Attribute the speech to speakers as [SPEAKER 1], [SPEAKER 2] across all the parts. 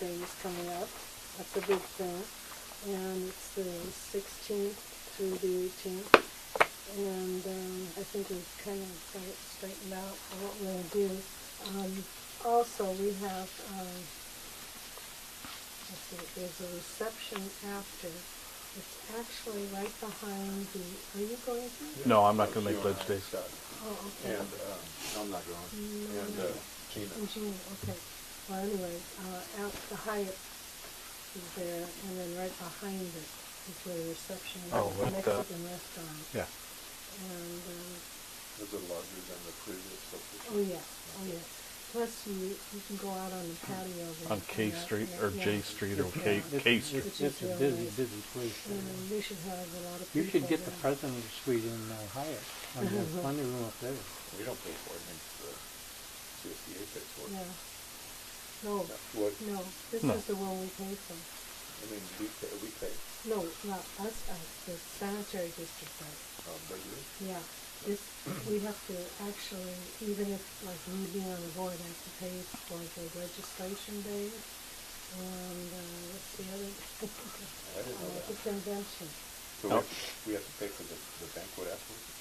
[SPEAKER 1] Day is coming up. That's a big thing. And it's the 16th through the 18th. And um, I think we've kind of got it straightened out for what we're going to do. Um, also, we have, um, let's see, there's a reception after. It's actually right behind the, are you going to?
[SPEAKER 2] No, I'm not gonna
[SPEAKER 3] She
[SPEAKER 2] make
[SPEAKER 3] and I
[SPEAKER 2] Ledge Day.
[SPEAKER 3] shot,
[SPEAKER 1] Oh, okay.
[SPEAKER 3] And, uh, I'm not going, and, uh, Gina.
[SPEAKER 1] In June, okay. Well, anyway, uh, out the Hyatt is there, and then right behind it is where the reception is,
[SPEAKER 2] Oh,
[SPEAKER 1] the
[SPEAKER 2] right there.
[SPEAKER 1] Mexican restaurant.
[SPEAKER 2] Yeah.
[SPEAKER 1] And, uh,
[SPEAKER 3] Is it larger than the previous location?
[SPEAKER 1] oh yeah, oh yeah. Plus you, you can go out on the patio. there
[SPEAKER 2] On
[SPEAKER 1] and
[SPEAKER 2] K
[SPEAKER 1] that-
[SPEAKER 2] Street,
[SPEAKER 1] yeah,
[SPEAKER 2] or
[SPEAKER 1] yeah.
[SPEAKER 2] J Street, or K,
[SPEAKER 1] Yeah.
[SPEAKER 2] K Street.
[SPEAKER 1] Which
[SPEAKER 4] It's
[SPEAKER 1] is
[SPEAKER 4] it's a
[SPEAKER 1] really
[SPEAKER 4] busy,
[SPEAKER 1] nice.
[SPEAKER 4] busy place. there.
[SPEAKER 1] And we should have a lot of people
[SPEAKER 4] You should get the
[SPEAKER 1] there.
[SPEAKER 4] president's suite in uh, Hyatt, on the funny room up there.
[SPEAKER 3] We don't pay for it, I think the CSDA pays for it.
[SPEAKER 1] Yeah. No,
[SPEAKER 3] What,
[SPEAKER 1] no, this
[SPEAKER 2] No.
[SPEAKER 1] is the one we paid for.
[SPEAKER 3] I mean, we pay, we pay,
[SPEAKER 1] No, not us, us, the sanitary district, right?
[SPEAKER 3] um, but you,
[SPEAKER 1] Yeah, this, we have to actually, even if, like, me being on the board, I have to pay for the registration day and, uh, what's the other?
[SPEAKER 3] I didn't know
[SPEAKER 1] Uh, The
[SPEAKER 3] that.
[SPEAKER 1] convention.
[SPEAKER 3] So we
[SPEAKER 2] No.
[SPEAKER 3] have to- we have to pay for the, the banquet afterwards?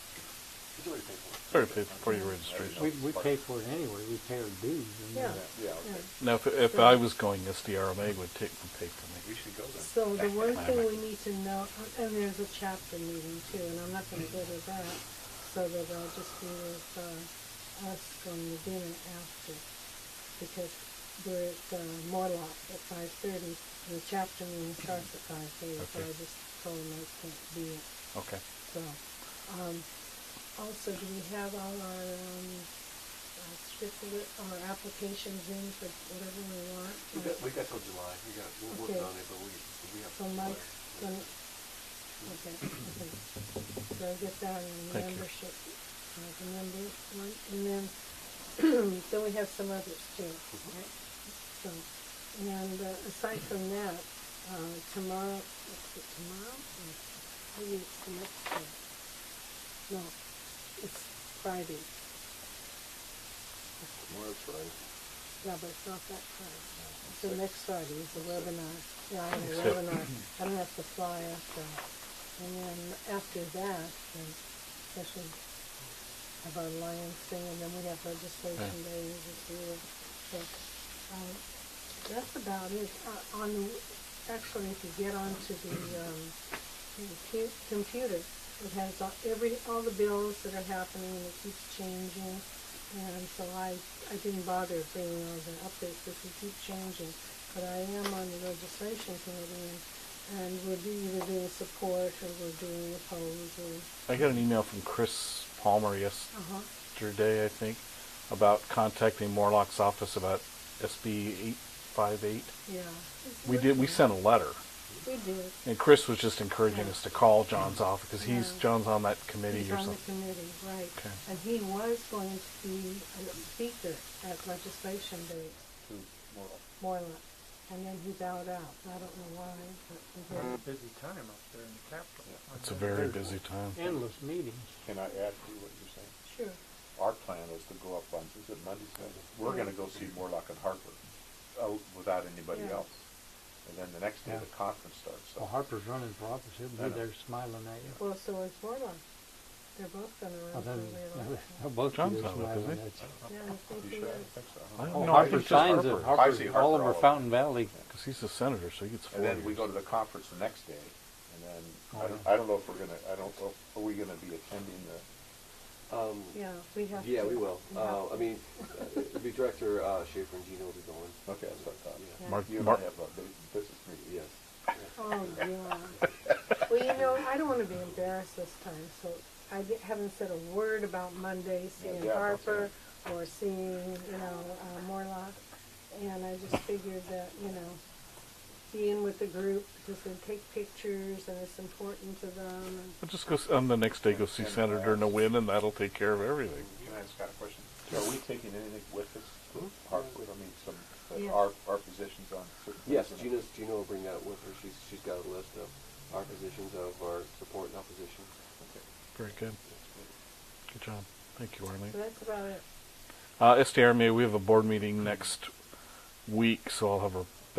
[SPEAKER 3] He's already paid for it.
[SPEAKER 2] Already paid for your
[SPEAKER 3] I
[SPEAKER 2] registration.
[SPEAKER 4] We,
[SPEAKER 3] didn't know.
[SPEAKER 4] we pay for it anyway, we pay our dues. and
[SPEAKER 1] Yeah.
[SPEAKER 3] Yeah, yeah, okay.
[SPEAKER 1] Yeah.
[SPEAKER 2] Now, if, if I was going, this the RMA would take the pay for
[SPEAKER 3] We
[SPEAKER 2] me.
[SPEAKER 3] should go then.
[SPEAKER 1] So the one
[SPEAKER 2] I
[SPEAKER 1] thing
[SPEAKER 2] like
[SPEAKER 1] we need to know, and there's a chapter meeting too, and I'm not gonna go to that, so that I'll just be with, uh, us from the dinner after. Because we're at, uh, Morlock at five thirty, and the chapter meeting starts at five thirty, so I
[SPEAKER 2] Okay.
[SPEAKER 1] just told them I can't be it,
[SPEAKER 2] Okay.
[SPEAKER 1] so. Um, also, do we have all our, um, uh, scripted, our applications in for whatever we want?
[SPEAKER 3] We got, we got till July, we got, we're working
[SPEAKER 1] Okay.
[SPEAKER 3] on it, but we, we have.
[SPEAKER 1] So
[SPEAKER 3] till July.
[SPEAKER 1] Mike's gonna, okay, okay. So I'll get that in
[SPEAKER 2] Thank you.
[SPEAKER 1] membership, uh, the member one, and then, then we have some others too, right?
[SPEAKER 3] Mm-hmm.
[SPEAKER 1] So, and uh, aside from that, uh, tomorrow, is it tomorrow? Or Maybe it's the next day. No, it's Friday.
[SPEAKER 3] Tomorrow's Friday.
[SPEAKER 1] No, but it's not that Friday. So next Friday is the webinar. Yeah, I have a
[SPEAKER 2] Except-
[SPEAKER 1] webinar. I don't have to fly after. And then after that, then especially have our Lions thing, and then we have registration
[SPEAKER 2] Yeah.
[SPEAKER 1] days this year. So, um, that's about it. Uh, on, actually, if you get onto the, um, the cu- computer, it has all, every, all the bills that are happening, and it keeps changing. And so I, I didn't bother bringing all the updates because they keep changing. But I am on the registration committee and, and we're do- either doing support or we're doing opposed or,
[SPEAKER 2] I got an email from Chris Palmer
[SPEAKER 1] uh-huh,
[SPEAKER 2] yesterday, I think, about contacting Morlock's office about SB eight five eight.
[SPEAKER 1] yeah.
[SPEAKER 2] We did, we sent a letter,
[SPEAKER 1] We did.
[SPEAKER 2] and Chris was just encouraging us to call John's office, because he's,
[SPEAKER 1] Yeah.
[SPEAKER 2] John's on that committee
[SPEAKER 1] He's
[SPEAKER 2] or
[SPEAKER 1] on the
[SPEAKER 2] something.
[SPEAKER 1] committee, right.
[SPEAKER 2] Okay.
[SPEAKER 1] And he was going to be a speaker at legislation day,
[SPEAKER 3] Two more.
[SPEAKER 1] more or less. And then he bowed out. I don't know why, but he did.
[SPEAKER 5] busy time up there in the Capitol. on
[SPEAKER 2] It's
[SPEAKER 5] that
[SPEAKER 2] a very
[SPEAKER 5] Thursday.
[SPEAKER 2] busy time.
[SPEAKER 4] Endless meetings.
[SPEAKER 3] Can I add to what you're saying?
[SPEAKER 1] Sure.
[SPEAKER 3] Our plan is to go up on, is it Monday, Sunday? We're gonna go see Morlock and Harper, out without anybody
[SPEAKER 1] Yeah.
[SPEAKER 3] else. And then the next day,
[SPEAKER 4] Yeah.
[SPEAKER 3] the conference starts, so.
[SPEAKER 4] Well, Harper's running for office, he'll
[SPEAKER 3] I
[SPEAKER 4] be
[SPEAKER 3] know.
[SPEAKER 4] there smiling at you.
[SPEAKER 1] Well, so is Warlock. They're both gonna run
[SPEAKER 4] Well,
[SPEAKER 1] for
[SPEAKER 4] then,
[SPEAKER 1] reelection.
[SPEAKER 4] they'll both be
[SPEAKER 2] John's
[SPEAKER 4] there
[SPEAKER 2] not with,
[SPEAKER 4] smiling
[SPEAKER 2] is
[SPEAKER 4] at
[SPEAKER 2] he?
[SPEAKER 4] you.
[SPEAKER 1] Oh, Yeah, I think
[SPEAKER 3] You
[SPEAKER 1] he
[SPEAKER 3] sure? I
[SPEAKER 1] is.
[SPEAKER 3] don't think so.
[SPEAKER 2] I don't
[SPEAKER 4] Oh,
[SPEAKER 2] know. It's
[SPEAKER 4] Harper
[SPEAKER 2] just
[SPEAKER 4] signs
[SPEAKER 3] I
[SPEAKER 2] Harper.
[SPEAKER 4] it,
[SPEAKER 3] see
[SPEAKER 4] Harper's
[SPEAKER 3] Harper
[SPEAKER 4] all
[SPEAKER 3] all
[SPEAKER 4] over
[SPEAKER 3] over.
[SPEAKER 4] Fountain Valley.
[SPEAKER 2] Because he's a senator, so he gets four
[SPEAKER 3] And then we
[SPEAKER 2] years.
[SPEAKER 3] go to the conference the next day, and then, I
[SPEAKER 4] Oh,
[SPEAKER 3] don't,
[SPEAKER 4] yeah.
[SPEAKER 3] I don't know if we're gonna, I don't, know if- are we gonna be attending the,
[SPEAKER 6] Um,
[SPEAKER 1] Yeah, we have.
[SPEAKER 6] yeah,
[SPEAKER 1] to.
[SPEAKER 6] we will.
[SPEAKER 1] We have
[SPEAKER 6] Uh, I
[SPEAKER 1] to.
[SPEAKER 6] mean, uh, the director, uh, Schaefer and Gina will be going.
[SPEAKER 3] okay, that's what I thought.
[SPEAKER 6] Yeah.
[SPEAKER 1] Yeah.
[SPEAKER 2] Mark,
[SPEAKER 3] You and I
[SPEAKER 2] Mark,
[SPEAKER 3] have a big business meeting,
[SPEAKER 6] Yes.
[SPEAKER 3] yes.
[SPEAKER 1] Oh, yeah. Well, you know, I don't want to be embarrassed this time, so I di- haven't said a word about Monday seeing
[SPEAKER 3] Yeah, that's
[SPEAKER 1] Harper or seeing, you know, uh, Morlock. And I just figured that, you know, being with the group, because they take pictures and it's important to them. and-
[SPEAKER 2] I'll just go, s- and the next day go see
[SPEAKER 3] And- uh,
[SPEAKER 2] Senator Nguyen, and that'll take care of everything.
[SPEAKER 3] Can I ask Scott a question? So are we taking anything with us, to Harper, I mean, some,
[SPEAKER 1] Yeah.
[SPEAKER 3] our, our positions on certain.
[SPEAKER 6] Yes,
[SPEAKER 3] things?
[SPEAKER 6] Gina's, Gina will bring that with her. She's, she's got a list of our positions of our support and opposition.
[SPEAKER 3] Okay.
[SPEAKER 2] Very good. Good job. Thank you,
[SPEAKER 1] So
[SPEAKER 2] Arlene.
[SPEAKER 1] that's about it.
[SPEAKER 2] Uh, SDRMA, we have a board meeting next week, so I'll have a